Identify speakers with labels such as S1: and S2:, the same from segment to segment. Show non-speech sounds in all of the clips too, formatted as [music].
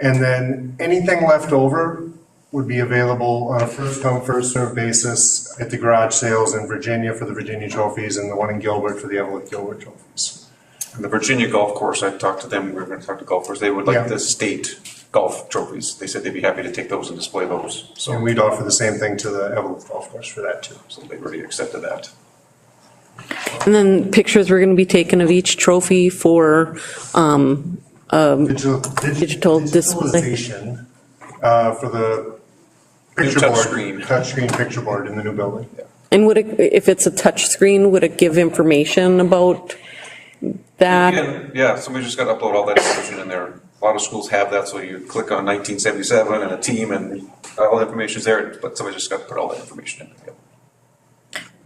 S1: And then anything left over would be available on a first come, first served basis at the garage sales in Virginia for the Virginia trophies and the one in Gilbert for the Evelyn Gilbert trophies.
S2: And the Virginia Golf Course, I talked to them, we were gonna talk to golfers, they would like
S1: Yeah.
S2: the state golf trophies. They said they'd be happy to take those and display those,
S1: And
S2: so
S1: we'd offer the same thing to the Evelyn golf course for that too.
S2: so they already accepted that.
S3: And then pictures were going to be taken of each trophy for, um,
S1: Digital
S3: Digital display.
S1: digitalization, uh, for the
S2: New
S1: picture board.
S2: touchscreen.
S1: Touchscreen picture board in the new building.
S3: and would it, if it's a touch screen, would it give information about that?
S2: Yeah, yeah, somebody just gotta upload all that information in there. A lot of schools have that, so you click on nineteen seventy-seven and a team and all the information's there, but somebody just gotta put all that information in. Yep.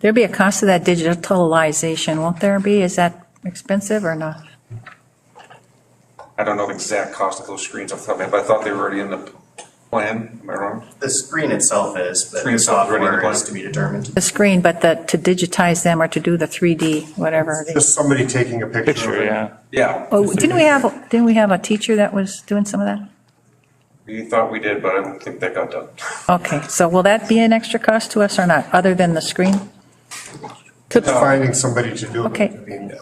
S4: There'll be a cost to that digitalization, won't there be? Is that expensive or not?
S2: I don't know the exact cost of those screens off the top of my head, but I thought they were already in the plan, am I wrong?
S5: The screen itself is, but
S2: Screen
S5: the
S2: itself is ready to
S5: software
S2: play.
S5: is to be determined.
S4: The screen, but the, to digitize them or to do the 3D, whatever. they-
S1: Just somebody taking a picture. of
S6: Picture,
S1: it.
S6: yeah.
S2: Yeah.
S4: Oh, didn't we have, didn't we have a teacher that was doing some of that?
S2: We thought we did, but I don't think that got done.
S4: Okay, so will that be an extra cost to us or not, other than the screen?
S1: Finding somebody to do it.
S4: Okay.
S1: I mean,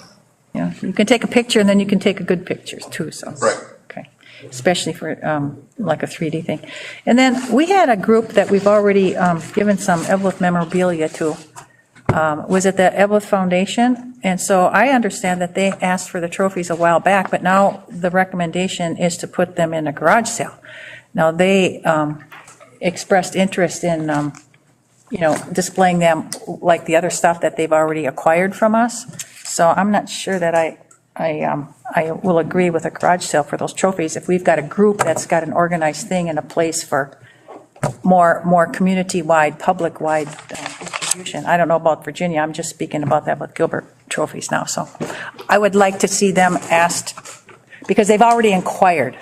S4: Yeah, you can take a picture and then you can take a good picture too, so.
S2: Right.
S4: Okay, especially for um, like a 3D thing. And then we had a group that we've already um, given some Evelyn memorabilia to. Um, Was it the Evelyn Foundation? And so I understand that they asked for the trophies a while back, but now the recommendation is to put them in a garage sale. Now, they um, expressed interest in, um, you know, displaying them like the other stuff that they've already acquired from us. So I'm not sure that I, I, um, I will agree with a garage sale for those trophies. If we've got a group that's got an organized thing and a place for more, more community-wide, public-wide uh, distribution. I don't know about Virginia, I'm just speaking about that with Gilbert trophies now, so. I would like to see them asked, because they've already inquired,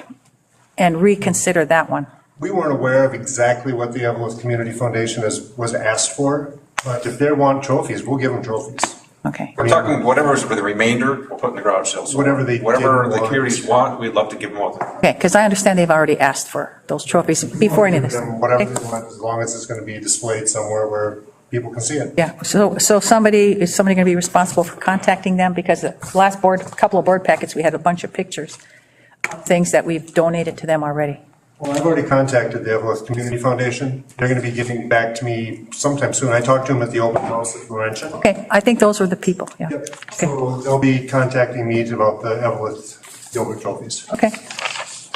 S4: and reconsider that one.
S1: We weren't aware of exactly what the Evelyn Community Foundation is, was asked for, but if they want trophies, we'll give them trophies.
S4: Okay,
S2: We're talking whatever's for the remainder, we'll put in the garage sale. So
S1: Whatever they
S2: Whatever
S1: didn't
S2: the
S1: want.
S2: communities want, we'd love to give them all.
S4: okay, because I understand they've already asked for those trophies before any of this.
S1: We'll give them Whatever they want, as long as it's going to be displayed somewhere where people can see it.
S4: Yeah, so, so somebody, is somebody going to be responsible for contacting them? Because the last board, couple of board packets, we had a bunch of pictures, of things that we've donated to them already.
S1: Well, I've already contacted the Evelyn Community Foundation. They're going to be giving back to me sometime soon. I talked to them at the open house at Laurentian.
S4: Okay, I think those were the people, yeah.
S1: Yep.
S4: Okay,
S1: So they'll be contacting me about the Evelyn Gilbert trophies.
S4: okay.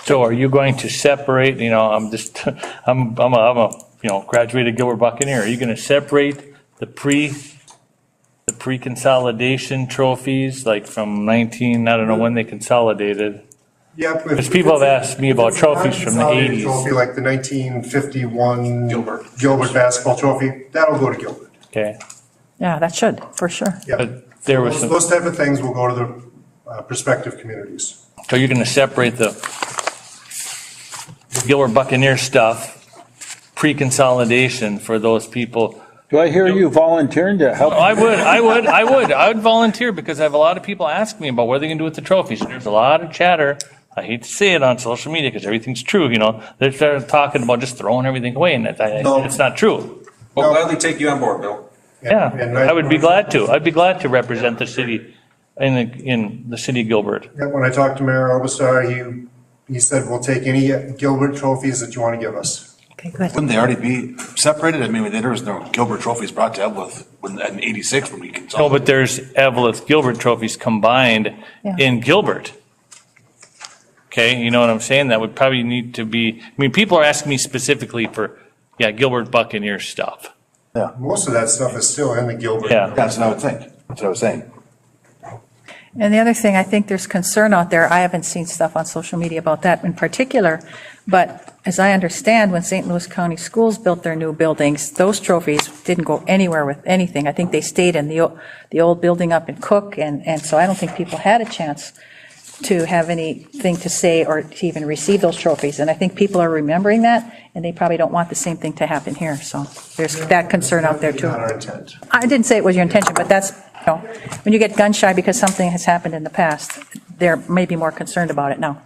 S6: So are you going to separate, you know, I'm just, [laughs] I'm, I'm a, I'm a, you know, graduated Gilbert Buccaneer. Are you going to separate the pre, the pre-consolidation trophies, like from 19, I don't know when they consolidated?
S1: Yep.
S6: Because people have asked me about trophies from the
S1: Consolidated
S6: 80s.
S1: Trophy like the 1951
S2: Gilbert.
S1: Gilbert basketball trophy, that'll go to Gilbert.
S6: Okay,
S4: Yeah, that should, for sure.
S1: Yeah.
S6: but there was
S1: Those
S6: some.
S1: those type of things will go to the uh, prospective communities.
S6: So you're going to separate the Gilbert Buccaneer stuff, pre-consolidation for those people.
S7: Do I hear you volunteering to help?
S6: Oh, I would, I would, I would, I would volunteer because I have a lot of people ask me about what they're going to do with the trophies. There's a lot of chatter. I hate to say it on social media because everything's true, you know. They're, they're talking about just throwing everything away and that,
S1: No.
S6: I- it's not true.
S2: We'll gladly take you on board, Bill.
S6: Yeah,
S1: And
S6: I would be glad to. I'd be glad to represent the city in the, in the city of Gilbert.
S1: Yeah, When I talked to Mayor Obasar, he, he said, we'll take any Gilbert trophies that you want to give us.
S4: Okay, good.
S8: Wouldn't they already be separated? I mean, there was no Gilbert trophies brought to Evelyn when, in eighty-six when we
S6: No,
S8: consolidated.
S6: but there's Evelith Gilbert trophies combined
S4: Yeah.
S6: in Gilbert. Okay, you know what I'm saying? That would probably need to be, I mean, people are asking me specifically for, yeah, Gilbert Buccaneer stuff.
S1: Most of that stuff is still in the Gilbert.
S6: Yeah.
S8: That's what I would think. That's what I was saying.
S4: And the other thing, I think there's concern out there, I haven't seen stuff on social media about that in particular, but as I understand, when St. Louis County Schools built their new buildings, those trophies didn't go anywhere with anything. I think they stayed in the, o- the old building up in Cook, and, and so I don't think people had a chance to have anything to say or to even receive those trophies. And I think people are remembering that, and they probably don't want the same thing to happen here, so there's that concern out there too.
S1: Not our intent.
S4: I didn't say it was your intention, but that's, you know, when you get gun shy because something has happened in the past, they're maybe more concerned about it now.